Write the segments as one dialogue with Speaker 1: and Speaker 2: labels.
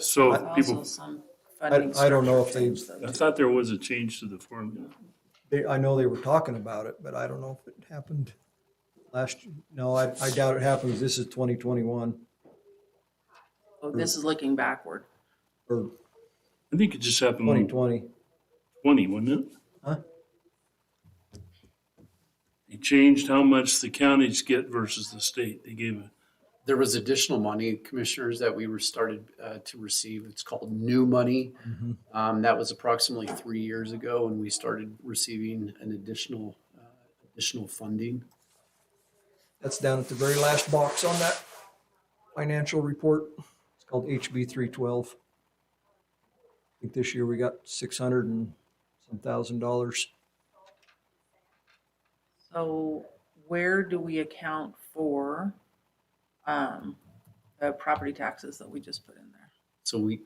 Speaker 1: So if
Speaker 2: Also,
Speaker 1: people,
Speaker 2: some
Speaker 3: I-
Speaker 2: funding
Speaker 3: I don't know if
Speaker 2: structure
Speaker 3: they've-
Speaker 2: changed though,
Speaker 1: I
Speaker 2: too.
Speaker 1: thought there was a change to the formula.
Speaker 3: They, I know they were talking about it, but I don't know if it happened last, no, I, I doubt it happens. This is twenty twenty-one
Speaker 2: Oh, This is looking backward.
Speaker 3: or
Speaker 1: I think it just happened
Speaker 3: twenty
Speaker 1: in
Speaker 3: twenty.
Speaker 1: twenty, wasn't it?
Speaker 3: Huh?
Speaker 1: They changed how much the counties get versus the state. They gave a
Speaker 4: There was additional money, commissioners, that we were started uh, to receive. It's called new money. Um, That was approximately three years ago when we started receiving an additional, uh, additional funding.
Speaker 3: That's down at the very last box on that financial report. It's called HB three twelve. I think this year we got six hundred and some thousand dollars.
Speaker 2: So where do we account for um, the property taxes that we just put in there?
Speaker 4: So we,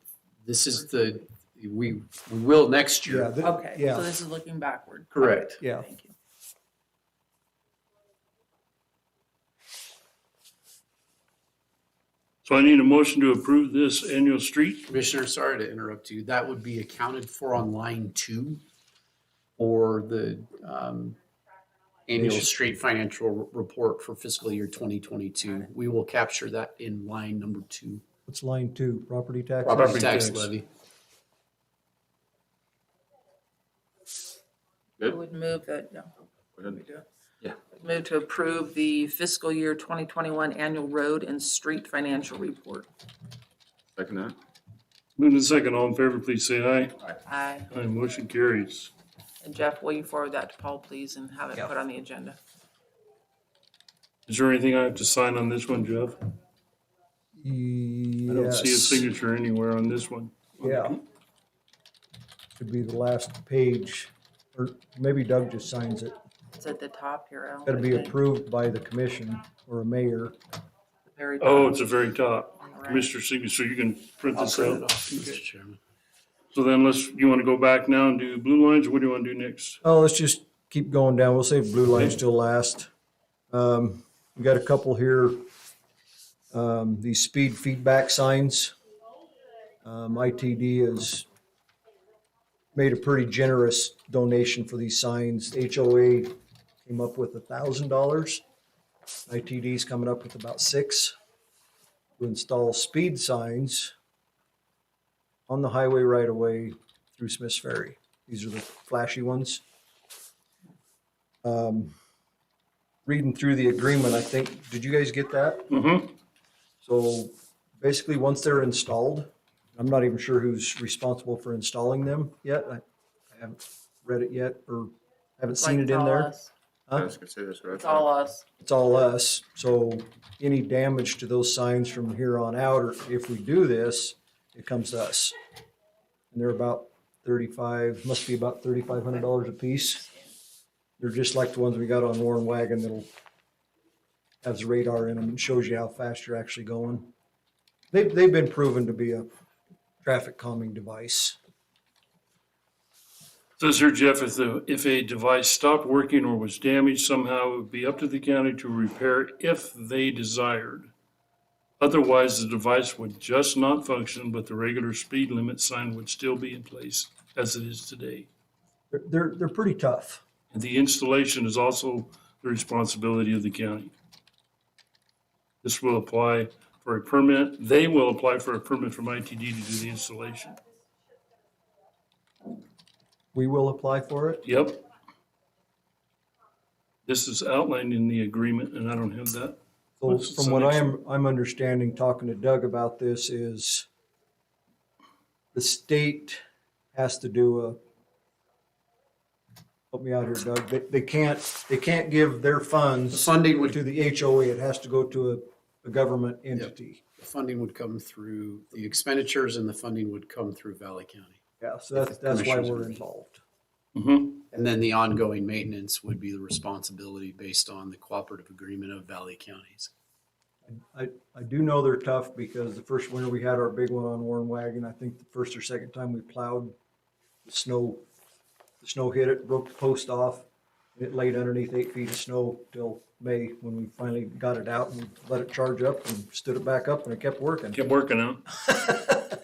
Speaker 4: this is the, we we will next
Speaker 3: Yeah,
Speaker 4: year.
Speaker 3: th-
Speaker 2: Okay, so
Speaker 3: Uh, Yeah,
Speaker 2: this is looking backward.
Speaker 4: Correct.
Speaker 3: yeah.
Speaker 2: Thank you.
Speaker 1: So I need a motion to approve this annual street.
Speaker 4: Commissioner, sorry to interrupt you. That would be accounted for on line two or the um, annual straight financial r- report for fiscal year 2022. We will capture that in line number two.
Speaker 3: It's line two, property tax.
Speaker 4: Property
Speaker 1: Property
Speaker 4: tax
Speaker 1: tax.
Speaker 4: levy.
Speaker 2: I would move that, yeah.
Speaker 5: ahead.
Speaker 2: We do it.
Speaker 5: Yeah.
Speaker 2: Move to approve the fiscal year 2021 annual road and street financial report.
Speaker 5: Second that?
Speaker 1: Move to second, all in favor, please say aye.
Speaker 2: Aye.
Speaker 1: Aye, motion carries.
Speaker 2: And Jeff, will you forward that to Paul, please, and have it put on the agenda?
Speaker 1: Is there anything I have to sign on this one, Jeff? I don't see a
Speaker 3: Yes.
Speaker 1: signature anywhere on this one.
Speaker 3: Yeah. Should be the last page, or maybe Doug just signs it.
Speaker 2: It's at the top here. Al,
Speaker 3: Gotta
Speaker 2: I
Speaker 3: be
Speaker 2: think,
Speaker 3: approved by the commission or a mayor.
Speaker 2: very
Speaker 1: Oh,
Speaker 2: top.
Speaker 1: it's the very top.
Speaker 2: All right.
Speaker 1: Commissioner signature, so you can print
Speaker 4: I'll
Speaker 1: this
Speaker 4: print it
Speaker 1: out.
Speaker 4: off, Mr. Chairman.
Speaker 1: So then let's, you want to go back now and do blue lines? What do you want to do next?
Speaker 3: Oh, let's just keep going down. We'll save blue lines till last. Um, we got a couple here. Um, these speed feedback signs. Um, ITD has made a pretty generous donation for these signs. HOA came up with a thousand dollars. ITD's coming up with about six to install speed signs on the highway right away through Smith's Ferry. These are the flashy ones. Um, Reading through the agreement, I think, did you guys get that?
Speaker 1: Mm-hmm.
Speaker 3: So basically, once they're installed, I'm not even sure who's responsible for installing them yet. I I haven't read it yet or haven't
Speaker 2: Like,
Speaker 3: seen it
Speaker 2: it's
Speaker 3: in
Speaker 2: all
Speaker 3: there.
Speaker 2: us.
Speaker 5: I
Speaker 3: Huh?
Speaker 5: was gonna say this, right?
Speaker 2: It's all us.
Speaker 3: It's all us. So any damage to those signs from here on out, or if we do this, it comes to us. And they're about thirty-five, must be about thirty-five hundred dollars a piece. They're just like the ones we got on Warren Wagon that'll has radar in them and shows you how fast you're actually going. They've, they've been proven to be a traffic calming device.
Speaker 1: Says here, Jeff, if the, if a device stopped working or was damaged somehow, it would be up to the county to repair if they desired. Otherwise, the device would just not function, but the regular speed limit sign would still be in place as it is today.
Speaker 3: They're, they're, they're pretty tough.
Speaker 1: And the installation is also the responsibility of the county. This will apply for a permit, they will apply for a permit from ITD to do the installation.
Speaker 3: We will apply for it.
Speaker 1: Yep. This is outlined in the agreement, and I don't have that.
Speaker 3: So
Speaker 1: What's the
Speaker 3: from what I
Speaker 1: next
Speaker 3: am, I'm understanding, talking to Doug about this is the state has to do a, help me out here, Doug, they, they can't, they can't give their
Speaker 4: The
Speaker 3: funds
Speaker 4: funding would,
Speaker 3: to the HOA. It has to go to a, a government entity.
Speaker 4: the funding would come through, the expenditures and the funding would come through Valley County.
Speaker 3: Yeah, so that's, that's why
Speaker 4: Commissioners
Speaker 3: we're
Speaker 4: agree.
Speaker 3: involved.
Speaker 1: Mm-hmm.
Speaker 4: And then the ongoing maintenance would be the responsibility based on the cooperative agreement of Valley Counties.
Speaker 3: I, I do know they're tough because the first winter we had our big one on Warren Wagon, I think the first or second time we plowed, the snow, the snow hit it, broke the post off, and it laid underneath eight feet of snow till May when we finally got it out and let it charge up and stood it back up and it kept working.
Speaker 1: Kept working out.